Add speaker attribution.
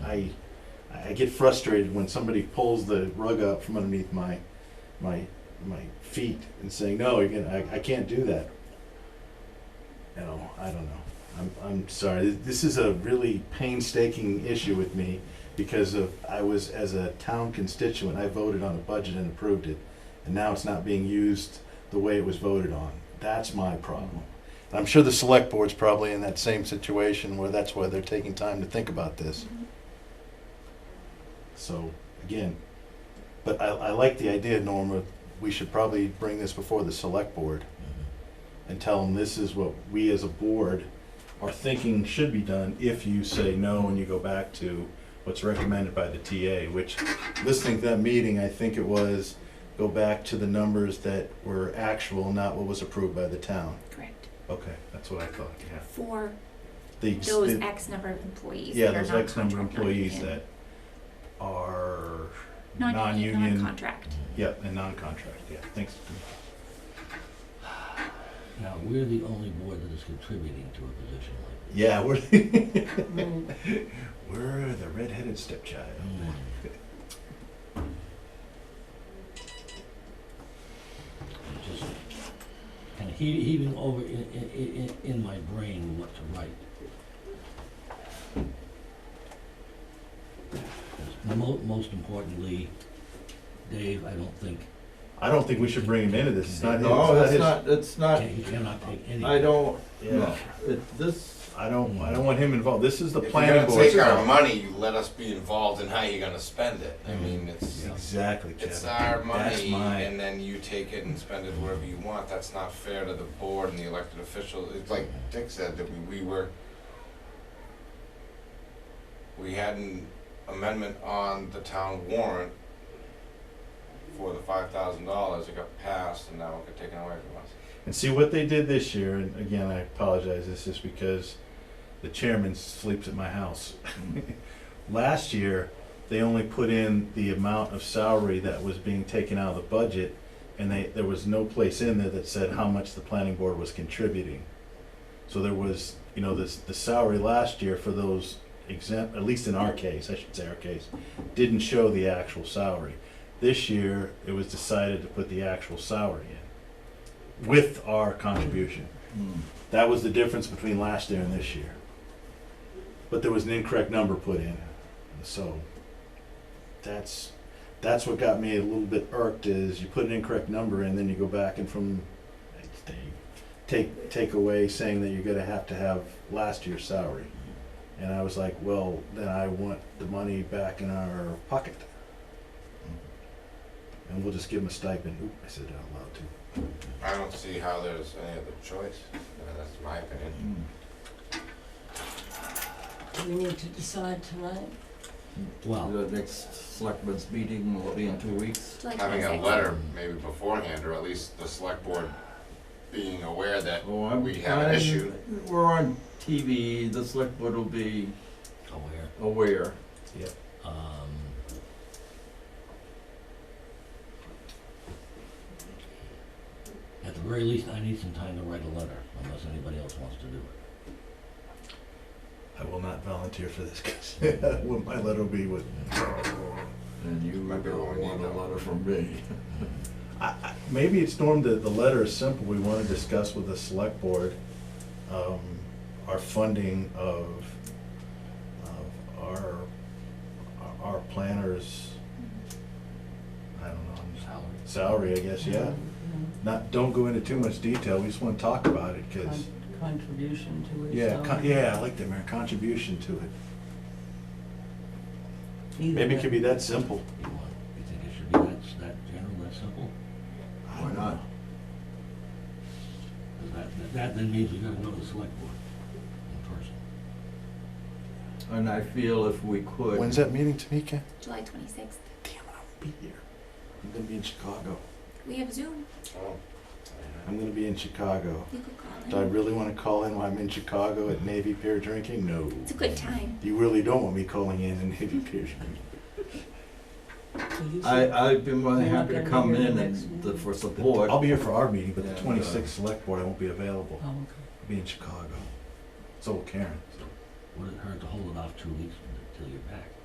Speaker 1: I, I get frustrated when somebody pulls the rug up from underneath my, my, my feet and saying, no, you can, I, I can't do that. You know, I don't know. I'm, I'm sorry. This is a really painstaking issue with me because of, I was, as a town constituent, I voted on a budget and approved it. And now it's not being used the way it was voted on. That's my problem. And I'm sure the select board's probably in that same situation where that's why they're taking time to think about this. So, again, but I, I like the idea, Norma, we should probably bring this before the select board and tell them this is what we as a board are thinking should be done if you say no and you go back to what's recommended by the TA, which, listening to that meeting, I think it was, go back to the numbers that were actual, not what was approved by the town.
Speaker 2: Correct.
Speaker 1: Okay, that's what I thought, yeah.
Speaker 2: For
Speaker 1: The-
Speaker 2: those
Speaker 1: the-
Speaker 2: X number of employees
Speaker 1: Yeah,
Speaker 2: that are
Speaker 1: those X number of
Speaker 2: non-contract,
Speaker 1: employees
Speaker 2: non-union.
Speaker 1: that are
Speaker 2: Non-union,
Speaker 1: non-union,
Speaker 2: non-contract.
Speaker 1: yeah, and non-contract, yeah, thanks.
Speaker 3: Now, we're the only board that is contributing to a position like this.
Speaker 1: Yeah, we're, we're the redheaded stepchild.
Speaker 3: Mm. It's Just kind of heaving over in, in, in- in my brain what to write. Because mo- most importantly, Dave, I don't think,
Speaker 1: I don't think we should bring him into this, it's not his.
Speaker 4: No, that's
Speaker 1: his-
Speaker 4: not, that's not,
Speaker 3: can- he cannot take any.
Speaker 4: I don't,
Speaker 1: Yeah,
Speaker 4: it, this,
Speaker 1: I don't, I don't want him involved, this is the
Speaker 5: If you're
Speaker 1: planning
Speaker 5: gonna
Speaker 1: board.
Speaker 5: take our money, let us be involved in how you're gonna spend it. I mean, it's,
Speaker 3: Yeah.
Speaker 1: Exactly, Kevin.
Speaker 5: it's our
Speaker 1: That's
Speaker 5: money,
Speaker 1: my-
Speaker 5: and then you take it and spend it wherever you want. That's not fair to the board and the elected officials. It's like Dick said, that we, we were, we had an amendment on the town warrant for the five thousand dollars. It got passed, and now it got taken away from us.
Speaker 1: And see what they did this year, and again, I apologize, this is because the chairman sleeps at my house. Last year, they only put in the amount of salary that was being taken out of the budget, and they, there was no place in there that said how much the planning board was contributing. So there was, you know, this, the salary last year for those exempt, at least in our case, I should say our case, didn't show the actual salary. This year, it was decided to put the actual salary in with our contribution. That was the difference between last year and this year. But there was an incorrect number put in, so that's, that's what got me a little bit irked is you put an incorrect number in, then you go back and from, they take, take away saying that you're gonna have to have last year's salary. And I was like, well, then I want the money back in our pocket. And we'll just give them a stipend. Oop, I said that out loud too.
Speaker 5: I don't see how there's any other choice. Uh, That's my opinion.
Speaker 6: Do we need to decide tonight?
Speaker 3: Well,
Speaker 4: the next selectmen's meeting will be in two weeks.
Speaker 2: It's like
Speaker 5: having a
Speaker 2: those X-
Speaker 5: letter maybe beforehand, or at least the select board being aware that
Speaker 4: Oh, I'm-
Speaker 5: We have an
Speaker 4: I'm-
Speaker 5: issue.
Speaker 4: We're on TV, the select board will be
Speaker 3: aware.
Speaker 4: aware.
Speaker 3: Um, at the very least, I need some time to write a letter, unless anybody else wants to do it.
Speaker 1: I will not volunteer for this because my letter will be with.
Speaker 4: And you
Speaker 5: Might be
Speaker 4: will
Speaker 5: what we
Speaker 4: want
Speaker 5: need
Speaker 4: a
Speaker 5: now.
Speaker 4: letter from me.
Speaker 1: I, I, maybe it's Norm that the letter is simple. We want to discuss with the select board um, our funding of, of our our planners. I don't know I'm just-
Speaker 3: Salary.
Speaker 1: salary. I guess yeah.
Speaker 6: Mm,
Speaker 1: Not don't go into too much detail. We just want to talk about it
Speaker 6: mm,
Speaker 1: because
Speaker 6: con- Contribution to it.
Speaker 1: yeah,
Speaker 6: so-
Speaker 1: con- yeah. I like that man contribution to it.
Speaker 6: Either
Speaker 1: Maybe it could
Speaker 6: way.
Speaker 1: be that simple.
Speaker 3: You want, you think it should be that, s- that general, that simple?
Speaker 1: I
Speaker 4: Why
Speaker 1: don't
Speaker 4: not?
Speaker 1: know.
Speaker 3: 'Cause that, that- that then means we gotta go to the select board in person.
Speaker 4: And I feel if we could.
Speaker 1: When's that meeting, Tamika?
Speaker 2: July twenty-sixth.
Speaker 1: Damn it, I won't be here. I'm gonna be in Chicago.
Speaker 2: We have Zoom.
Speaker 5: oh,
Speaker 1: I'm gonna be in Chicago.
Speaker 2: You could call in.
Speaker 1: Do I really wanna call in while I'm in Chicago at Navy Pier drinking? No.
Speaker 2: It's a good time.
Speaker 1: You really don't want me calling in at Navy Pier drinking.
Speaker 6: So you said-
Speaker 4: I, I'd be more than
Speaker 6: You're not
Speaker 4: happy to
Speaker 6: gonna be
Speaker 4: come
Speaker 6: here
Speaker 4: in
Speaker 6: the next
Speaker 4: and, the- for support.
Speaker 1: I'll be here for our meeting, but
Speaker 4: Yeah,
Speaker 1: the
Speaker 4: but-
Speaker 1: twenty-sixth select board, I won't be available.
Speaker 6: Oh, okay.
Speaker 1: I'll be in Chicago. So will Karen, so.
Speaker 3: Would it hurt to hold it off two weeks until you're back?